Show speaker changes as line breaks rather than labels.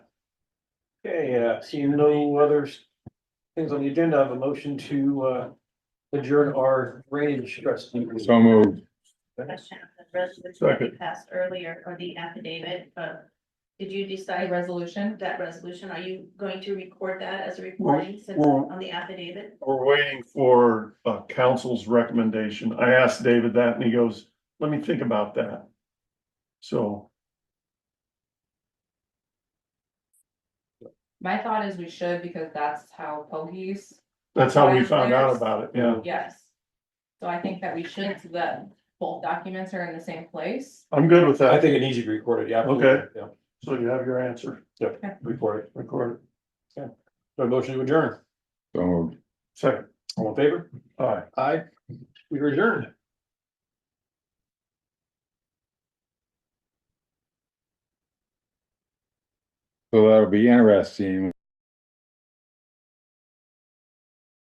Okay, uh, seeing no other things on the agenda, I have a motion to, uh, adjourn our drainage trust. meeting. Uh,
So moved.
Question of the resolution
Second.
we passed earlier or the affidavit, but did you
A
decide
resolution?
that resolution? Are you going to record that as a recording since
well-
on the affidavit?
We're waiting for uh council's recommendation. I asked David that and he goes, let me think about that. So,
My thought is we should because that's how pogies,
that's how we found out about it, yeah.
yes. So I think that we should, so that both documents are in the same place.
I'm good with
I
that.
think it needs to be recorded, yeah.
Okay.
Yeah,
So you have your answer,
recorded.
recorded,
So motion to adjourn.
So moved.
second,
All in favor?
aye.
Aye. We are adjourned.
So that'll be interesting